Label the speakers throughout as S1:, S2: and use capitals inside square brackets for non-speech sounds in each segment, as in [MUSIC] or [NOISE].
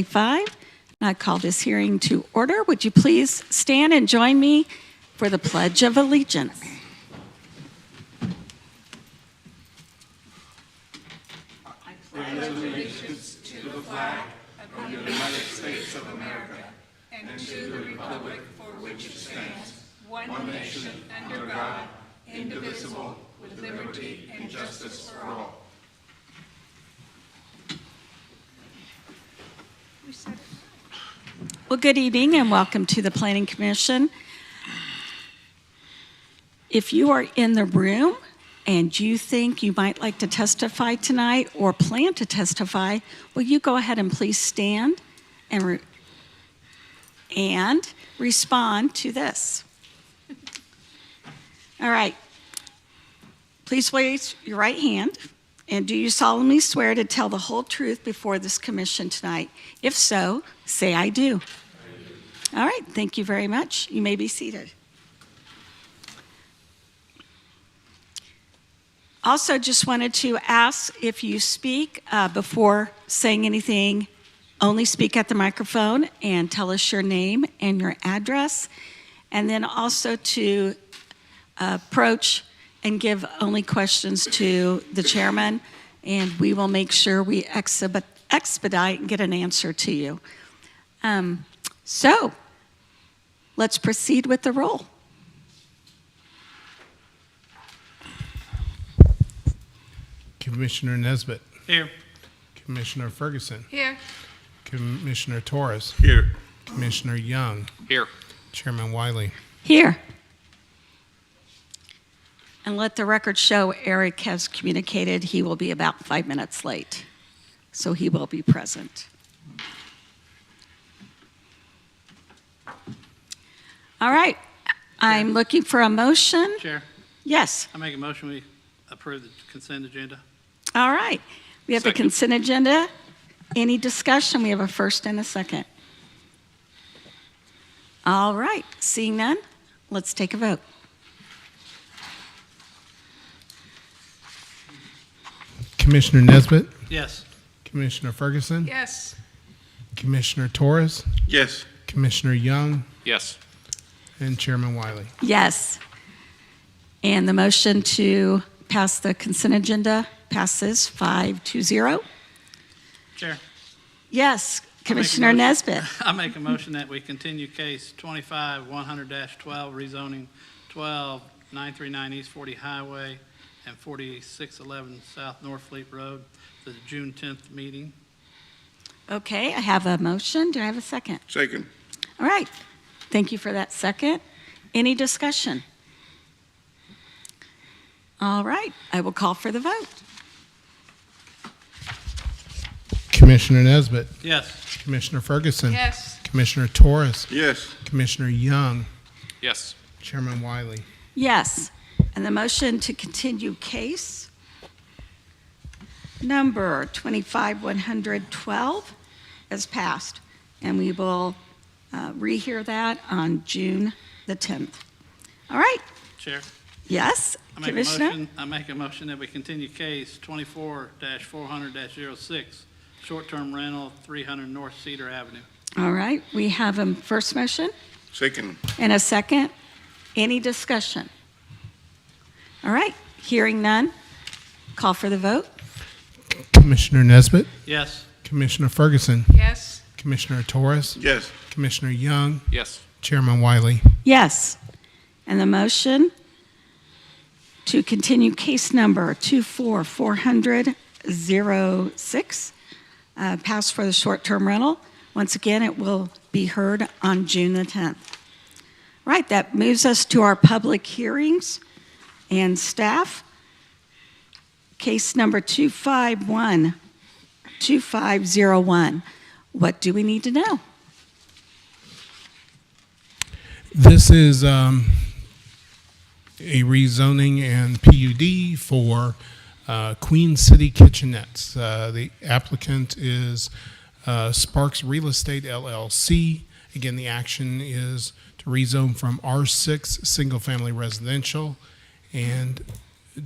S1: 25. And I call this hearing to order. Would you please stand and join me for the Pledge of Allegiance? Well, good evening and welcome to the Planning Commission. If you are in the room and you think you might like to testify tonight or plan to testify, will you go ahead and please stand and, re- and respond to this? All right. Please raise your right hand. And do you solemnly swear to tell the whole truth before this commission tonight? If so, say I do. All right, thank you very much. You may be seated. Also, just wanted to ask if you speak uh, before saying anything, only speak at the microphone and tell us your name and your address. And then also to approach and give only questions to the chairman, and we will make sure we exhibit- expedite and get an answer to you. Um, So, let's proceed with the roll.
S2: Commissioner Nesbitt,
S3: Here.
S2: Commissioner Ferguson,
S3: Here.
S2: Commissioner Torres,
S3: Here.
S2: Commissioner Young,
S3: Here.
S2: Chairman Wiley.
S1: Here. And let the record show Eric has communicated he will be about five minutes late, so he will be present. All right, I'm looking for a motion.
S3: Chair,
S1: Yes,
S3: I make a motion, we approve the consent agenda.
S1: all right. We have the
S3: Second.
S1: consent agenda. Any discussion? We have a first and a second. All right, seeing none, let's take a vote.
S2: Commissioner Nesbitt,
S3: Yes.
S2: Commissioner Ferguson,
S3: Yes.
S2: Commissioner Torres,
S4: Yes.
S2: Commissioner Young,
S4: Yes.
S2: and Chairman Wiley.
S1: Yes. And the motion to pass the consent agenda passes five to zero.
S3: Chair,
S1: Yes, Commissioner
S3: motion.
S1: Nesbitt.
S3: [LAUGHS] I make a motion that we continue case twenty-five, one hundred twelve, rezoning twelve, nine three nine East Forty Highway and forty-six eleven South North Fleet Road, to the June tenth meeting.
S1: Okay, I have a motion. Do I have a second?
S4: Second.
S1: All right. Thank you for that second. Any discussion? All right, I will call for the vote.
S2: Commissioner Nesbitt,
S3: Yes.
S2: Commissioner Ferguson,
S3: Yes.
S2: Commissioner Torres,
S4: Yes.
S2: Commissioner Young,
S4: Yes.
S2: Chairman Wiley.
S1: Yes, and the motion to continue case number 25-112 is passed, and we will uh, rehear that on June the 10th. All right,
S3: Chair,
S1: yes,
S3: I make a
S1: Commissioner?
S3: motion, I make a motion that we continue case twenty-four four hundred 6 short-term rental, three hundred North Cedar Avenue.
S1: All right, we have a first motion
S4: Second.
S1: and a second. Any discussion? All right, hearing none, call for the vote.
S2: Commissioner Nesbitt,
S3: Yes.
S2: Commissioner Ferguson,
S3: Yes.
S2: Commissioner Torres,
S4: Yes.
S2: Commissioner Young,
S4: Yes.
S2: Chairman Wiley.
S1: Yes. And the motion to continue case number 244006, uh, passed for the short-term rental. Once again, it will be heard on June the 10th. Right, that moves us to our public hearings and staff. Case number 251, 2501. What do we need to know?
S2: This is um, a rezoning and PUD for uh, Queen City Kitchenettes. Uh, The applicant is uh, Sparks Real Estate LLC. Again, the action is to rezone from R6 Single Family Residential and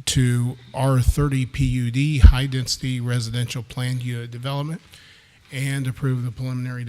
S2: to R30 PUD High Density Residential Planned Unit Development and approve the preliminary